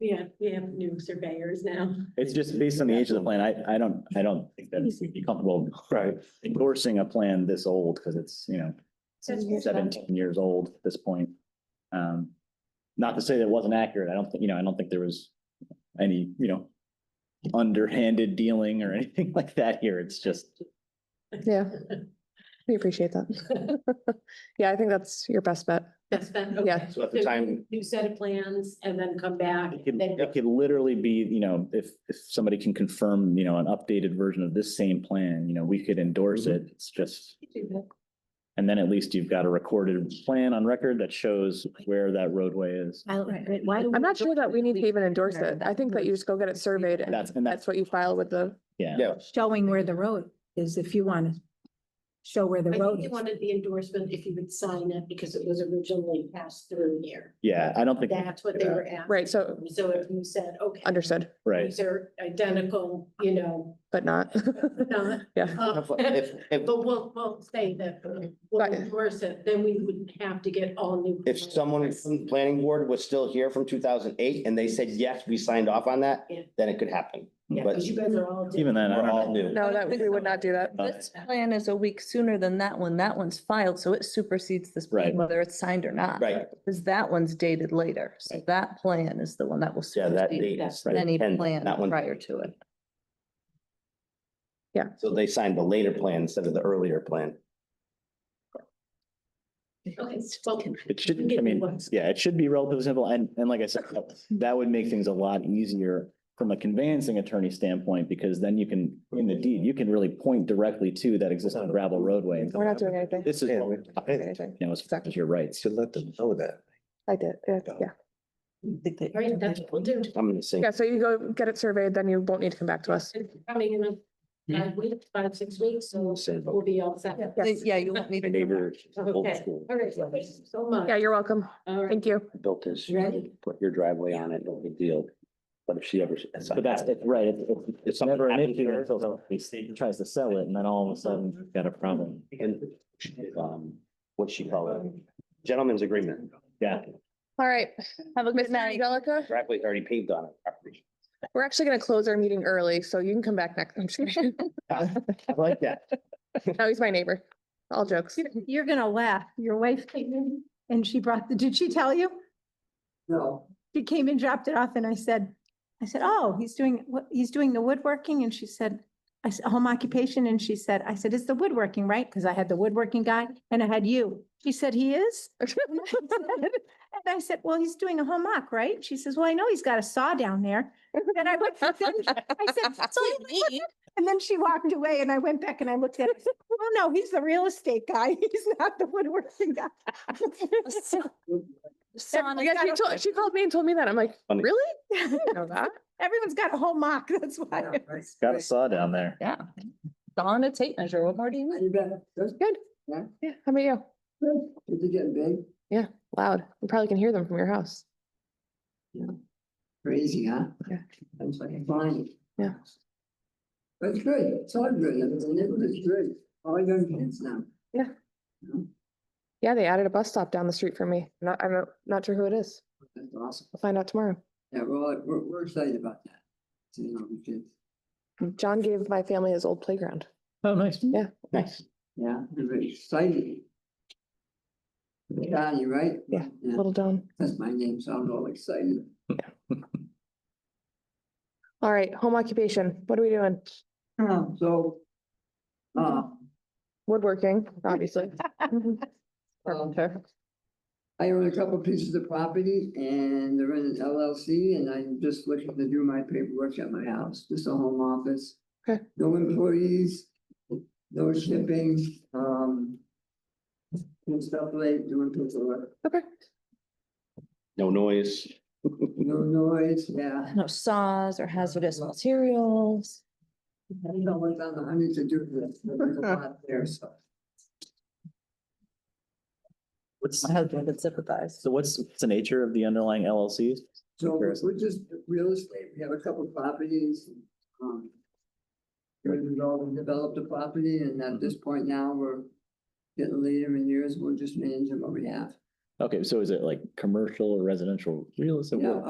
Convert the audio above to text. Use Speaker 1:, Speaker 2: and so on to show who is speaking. Speaker 1: Yeah, we have new surveyors now.
Speaker 2: It's just based on the age of the plan. I, I don't, I don't think that we'd be comfortable
Speaker 3: Right.
Speaker 2: endorsing a plan this old because it's, you know, seventeen years old at this point. Um, not to say that it wasn't accurate. I don't think, you know, I don't think there was any, you know, underhanded dealing or anything like that here. It's just,
Speaker 4: Yeah. We appreciate that. Yeah, I think that's your best bet.
Speaker 1: That's been, okay.
Speaker 4: Yeah.
Speaker 3: So at the time-
Speaker 1: New set of plans and then come back.
Speaker 2: it could,
Speaker 1: then-
Speaker 2: it could literally be, you know, if, if somebody can confirm, you know, an updated version of this same plan, you know, we could endorse it. It's just, and then at least you've got a recorded plan on record that shows where that roadway is.
Speaker 4: I'm not sure that we need to even endorse it. I think that you just go get it surveyed and
Speaker 2: That's, and
Speaker 4: that's
Speaker 2: that's,
Speaker 4: what you file with the,
Speaker 2: yeah.
Speaker 3: Yeah.
Speaker 5: Showing where the road is, if you want to show where the
Speaker 1: I think
Speaker 5: road
Speaker 1: they
Speaker 5: is.
Speaker 1: wanted the endorsement if you would sign it because it was originally passed through here.
Speaker 2: Yeah, I don't think,
Speaker 1: That's what they were asking.
Speaker 4: right, so
Speaker 1: So if you said, okay,
Speaker 4: understood,
Speaker 2: right.
Speaker 1: these are identical, you know,
Speaker 4: but not.
Speaker 1: not.
Speaker 4: Yeah.
Speaker 1: uh,
Speaker 3: If- If, if,
Speaker 1: But we'll, we'll say that we'll
Speaker 4: Right.
Speaker 1: endorse it, then we wouldn't have to get all new.
Speaker 3: if someone from the planning board was still here from two thousand eight and they said, yes, we signed off on that,
Speaker 1: Yeah.
Speaker 3: then it could happen.
Speaker 1: Yeah, because you guys are all.
Speaker 2: Even then, I
Speaker 3: We're
Speaker 2: don't Uh,
Speaker 3: all
Speaker 2: know.
Speaker 3: new.
Speaker 4: No, that, we would not do that.
Speaker 2: Uh,
Speaker 6: This plan is a week sooner than that one. That one's filed, so it supersedes this
Speaker 2: Right.
Speaker 6: plan, whether it's signed or not.
Speaker 3: Right.
Speaker 6: Because that one's dated later. So that plan is the one that will
Speaker 3: Yeah, that date
Speaker 6: supersede
Speaker 3: is. the
Speaker 6: any
Speaker 3: 10th,
Speaker 6: plan
Speaker 3: that one.
Speaker 6: prior to it.
Speaker 3: So they signed the later plan instead of the earlier plan.
Speaker 1: Okay, so
Speaker 2: It should, I mean, yeah, it should be relatively simple. And, and like I said, that- that would make things a lot easier from a conveyancing attorney standpoint, because then you can, in the deed, you can really point directly to that existing gravel roadway.
Speaker 4: We're not doing anything.
Speaker 2: This is, what we're talking about,
Speaker 4: Anything.
Speaker 2: you know, as far as your rights.
Speaker 7: Should let them know that.
Speaker 4: I did, yeah, yeah.
Speaker 1: Right, that's what we'll do.
Speaker 3: I'm gonna sing.
Speaker 4: Yeah, so you go get it surveyed, then you won't need to come back to us.
Speaker 1: It's Coming in
Speaker 4: Hmm.
Speaker 1: a five weeks, Uh, five, six weeks, so we'll be all set.
Speaker 6: Yeah,
Speaker 4: Yes.
Speaker 6: Yeah, you won't need
Speaker 2: My
Speaker 6: to.
Speaker 2: neighbor, old
Speaker 1: Okay,
Speaker 2: school.
Speaker 1: all right, thank you so much.
Speaker 4: Yeah, you're welcome.
Speaker 1: All right,
Speaker 4: Thank you.
Speaker 7: Built this,
Speaker 1: You ready?
Speaker 7: put your driveway on it, no big deal. But if she ever.
Speaker 2: But that's, it, right, it's, it's- it's
Speaker 7: something
Speaker 2: never an
Speaker 7: happens
Speaker 2: issue
Speaker 7: there.
Speaker 2: until somebody tries to sell it, and then all of a sudden, you've got a problem.
Speaker 3: And, um, what she called it, gentleman's agreement.
Speaker 2: Yeah.
Speaker 4: All right. Have a
Speaker 6: good night.
Speaker 4: Angelica,
Speaker 3: Driveway's already paved on it.
Speaker 4: we're actually going to close our meeting early, so you can come back next. I'm just kidding.
Speaker 2: I like that.
Speaker 4: No, he's my neighbor. All jokes.
Speaker 5: You're gonna laugh. Your wife came in and she brought, the. did she tell you?
Speaker 8: No,
Speaker 5: She came and dropped it off and I said, I said, oh, he's doing, what, he's doing the woodworking? And she said, I said, home occupation. And she said, I said, it's the woodworking, right? Because I had the woodworking guy and I had you. She said, he is? And I said- and I said, well, he's doing a home oc, right? She says, well, I know he's got a saw down there. And I went, then I said, "So you know what?" and then she walked away and I went back and I looked at her. I said, Oh, no, he's the real estate guy. He's not the woodworking guy.
Speaker 4: Oh Yeah, she told, she called me and told me that. I'm like,
Speaker 3: Funny.
Speaker 4: really? I didn't know that.
Speaker 5: Everyone's got a home mock, that's why.
Speaker 8: yeah, right.
Speaker 2: Got a saw down there.
Speaker 6: Yeah. Dawn, a tape measure. What more do you need?
Speaker 8: You bet. Good,
Speaker 4: Yeah, how about you?
Speaker 8: good. Kids uh, are getting big,
Speaker 4: Loud. You probably can hear them from your house.
Speaker 8: crazy, huh?
Speaker 4: Yeah.
Speaker 8: That's like flying.
Speaker 4: Yeah.
Speaker 8: That's good, it's all good, and the neighborhood's great, all young kids now.
Speaker 4: Yeah.
Speaker 8: You know,
Speaker 4: Yeah, they added a bus stop down the street from me. Not, I'm not, not sure who it is.
Speaker 8: That's awesome,
Speaker 4: We'll find out tomorrow.
Speaker 8: yeah, we're, all- we're, we're excited about that, seeing all the kids,
Speaker 4: John gave my family his old playground.
Speaker 2: Oh, nice.
Speaker 4: Yeah.
Speaker 3: Nice.
Speaker 8: yeah, we're excited. Johnny, right?
Speaker 4: Yeah. Little John.
Speaker 8: That's my name, so I'm all excited.
Speaker 4: All right, home occupation. What are we doing? Oh.
Speaker 8: So, uh,
Speaker 4: Woodworking, obviously.
Speaker 8: um,
Speaker 4: Carpenter.
Speaker 8: I own a couple pieces of property and they're in an LLC and I'm just looking to do my paperwork at my house, just a home office.
Speaker 4: Okay.
Speaker 8: No employees, no shipping, um. And stuff like doing paperwork,
Speaker 4: Okay.
Speaker 3: No noise.
Speaker 8: no noise, yeah.
Speaker 6: No saws or hazardous materials.
Speaker 8: I don't know what's on the honey to do this. There's a lot There, so.
Speaker 2: What's,
Speaker 6: My husband would sympathize.
Speaker 2: so what's, what's the nature of the underlying LLCs?
Speaker 8: So
Speaker 2: Comparison.
Speaker 8: we're just real estate, we have a couple properties, um. We're involved and developed a property and at
Speaker 2: Mm-hmm.
Speaker 8: this point now, we're getting later in years, we're just managing what we have.
Speaker 2: Okay, so is it like commercial or residential real estate?
Speaker 8: Yeah,
Speaker 2: What-